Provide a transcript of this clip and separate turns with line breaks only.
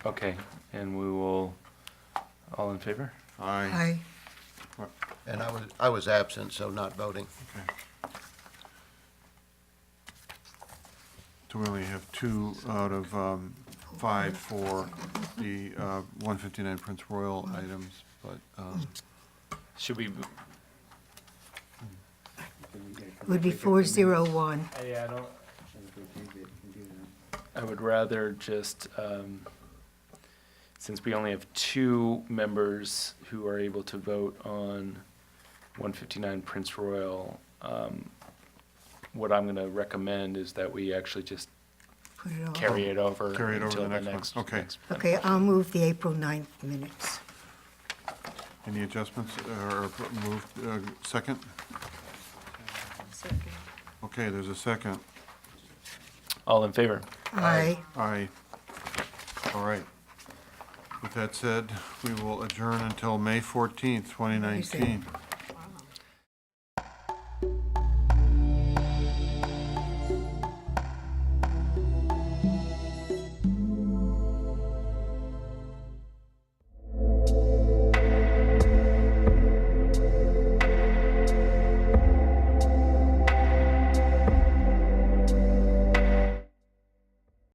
Okay, and we will, all in favor?
Aye.
Aye.
And I was, I was absent, so not voting.
So we only have two out of um, five for the uh, 159 Prince Royal items, but, um,
Should we,
Would be four zero one.
I don't, I would rather just, um, since we only have two members who are able to vote on one fifty-nine Prince Royal, um, what I'm gonna recommend is that we actually just
Put it off.
carry it over
Carry it over
until
the
the
next one.
next.
Okay.
next one.
Okay, I'll move the April 9th minutes.
any adjustments or moved, uh, second? Okay, there's a second.
All in favor?
Aye.
Aye. All right. With that said, we will adjourn until May 14th, 2019.